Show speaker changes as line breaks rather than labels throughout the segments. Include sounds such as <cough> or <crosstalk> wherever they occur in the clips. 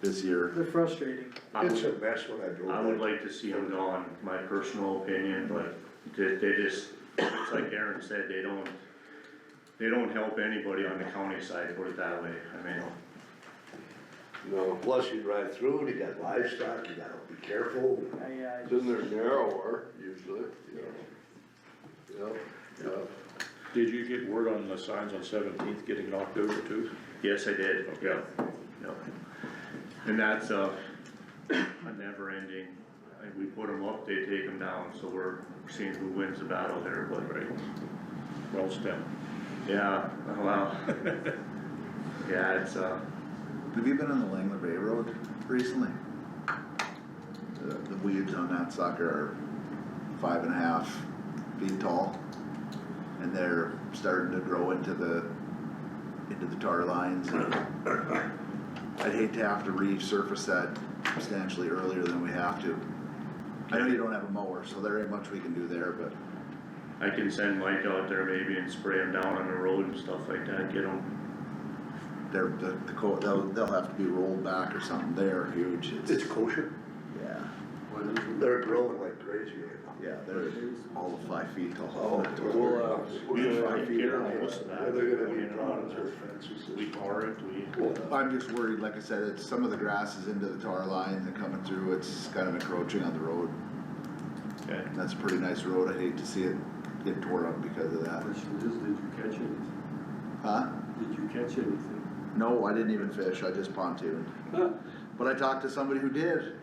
this year.
They're frustrating.
I
It's a
would,
mess when I drove.
I would
that.
like to see them gone, my personal opinion, but they, they just, it's like Aaron said, they don't, they don't help anybody on the county side, put it that way, I mean,
You know, plus you drive through, and you got livestock, you gotta be careful.
I, uh, I just-
Then they're narrower usually, you know. Yeah, yeah.
Did you get word on the signs on Seventeenth getting knocked over too?
yes, I did,
Okay.
yeah, yeah. And that's a, a never ending, and we put them up, they take them down, so we're seeing who wins the battle there, but.
Right. Well, stem.
Yeah, well, <laughs> yeah, it's, uh,
Have you been on the Langley Bay Road recently? The, the weeds on that sucker are five and a half feet tall. And they're starting to grow into the, into the tar lines. and I'd hate to have to resurface that substantially earlier than we have to. I know you don't have a mower, so there ain't much we can do there, but
I can send Mike out there maybe and spray them down on the road and stuff like that, get them,
they're, the, the coat, they'll, they'll have to be rolled back or something. They're huge. It's,
It's kosher,
yeah,
they're growing like crazy right now.
yeah, they're all of five feet
Oh,
tall.
we'll, uh,
We
we'll
don't
try
take
feet
care of
out.
most of that.
Yeah, They're gonna
We
be
don't.
problems with fences.
We tar it, we,
I'm just worried, like I said, it's, some of the grass is into the tar lines and coming through, it's kind of encroaching on the road.
Okay.
And that's a pretty nice road, I hate to see it get torn up because of that.
Question is, did you catch anything?
Huh?
Did you catch anything?
No, I didn't even fish, I just pontooned. But I talked to somebody who did.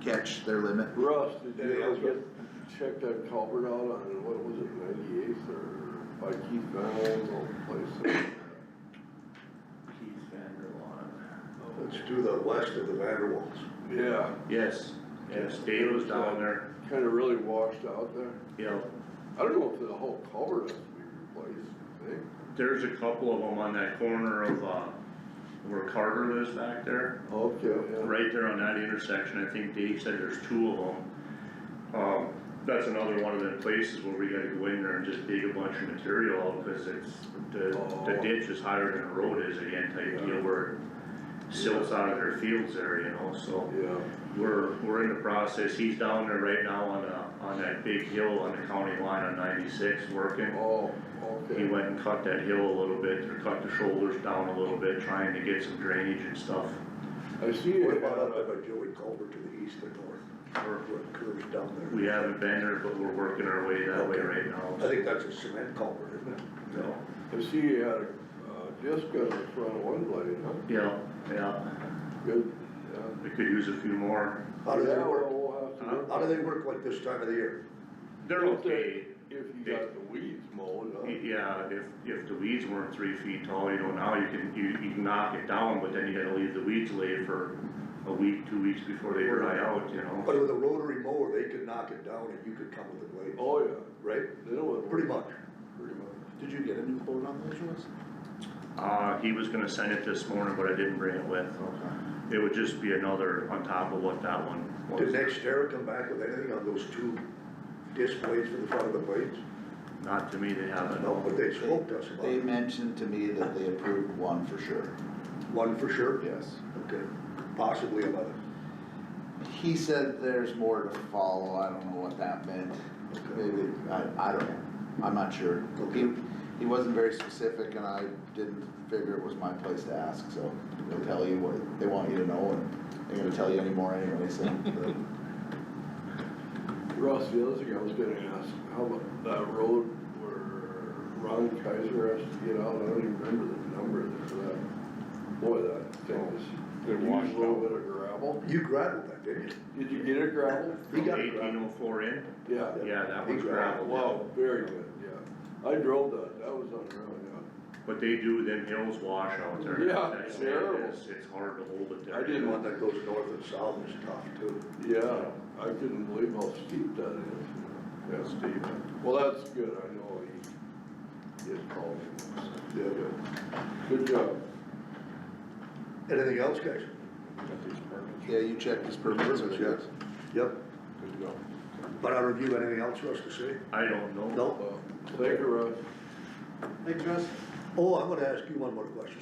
Catch their limit.
Russ, did
Anything
you
else,
ever get, check that culvert out on, what was it, ninety-eighth or by Keith Van Holmes old place?
Keith Vanderlaan.
It's to the west of the Vanderwalls.
Yeah,
Yes, yes, Dave was down there,
kinda really washed out there.
yeah,
I don't know if the whole culvert has to be replaced, I think.
there's a couple of them on that corner of, uh, where Carter lives back there,
Okay,
right there on that intersection, I think Dave said there's two of them. Um, that's another one of the places where we gotta go in there and just dig a bunch of material out, cause it's, the, the ditch is higher than the road is again, type deal where it silts out of their fields there, you know, so.
yeah, yeah.
We're, we're in the process, he's down there right now on, uh, on that big hill on the county line on ninety-six working.
Oh,
He
okay.
went and cut that hill a little bit, or cut the shoulders down a little bit, trying to get some drainage and stuff.
I see it.
What about up by Joey Culver to the east or north,
We're-
where it curves down there?
We haven't been there, but we're working our way that way right
I
now.
think that's a cement culvert, isn't it?
So,
I see you had a, uh, disc on the front of one blade, huh?
Yeah, yeah,
Good, yeah.
we could use a few more.
How do they
Yeah,
work,
we'll have to
Huh?
look
how do they work like this time of the year?
They're okay,
If you got the weeds mowed, huh?
yeah, if, if the weeds weren't three feet tall, you know, now you can, you, you can knock it down, but then you gotta leave the weeds lay for a week, two weeks before they dry out, you know?
But with a rotary mower, they could knock it down and you could come with a blade,
Oh, yeah,
right?
they don't.
Pretty much.
Pretty much.
Did you get a new quote on those ones?
Uh, he was gonna send it this morning, but I didn't bring it with. It would just be another on top of what that one
Did
was,
Nextera come back with anything on those two disc blades for the front of the blades?
not to me, they haven't.
No, but they spoke to us about
They
it.
mentioned to me that they approved one for sure,
One for sure?
yes.
Okay, possibly another.
He said there's more to follow, I don't know what that meant. Maybe, I, I don't know, I'm not sure. He, he wasn't very specific and I didn't figure it was my place to ask, so they'll tell you what they want you to know and they're gonna tell you anymore anyway, so.
Russ, the other thing I was gonna ask, how about that road where Ron Kaiser has to get out, I don't even remember the number there for that. Boy, that thing was,
Good
used a little
washout.
bit of gravel.
You gravelled that, didn't
Did you get it gravel?
you? He
From
got
eighteen
gravel.
oh four in,
Yeah.
yeah, that
He
was gravel.
gravel.
Wow, very good, yeah. I drove that, that was unreal, yeah.
But they do, them hills wash out there.
Yeah,
That
it's
sand
terrible.
is- It's hard to hold it there.
I
The
didn't-
one that goes north and south is tough too.
Yeah, I couldn't believe how steep that is. Yeah, steep. Well, that's good, I know he, he had called me. so, Yeah, good. Good job.
Anything else, guys?
got these permits.
Yeah, you checked his permits, yes?
Yep.
Good to go.
But I review anything else for us to say?
I don't know.
No?
Well, Uh, Thank you, Russ.
Hey, Russ,
Oh, I'm gonna ask you one more question.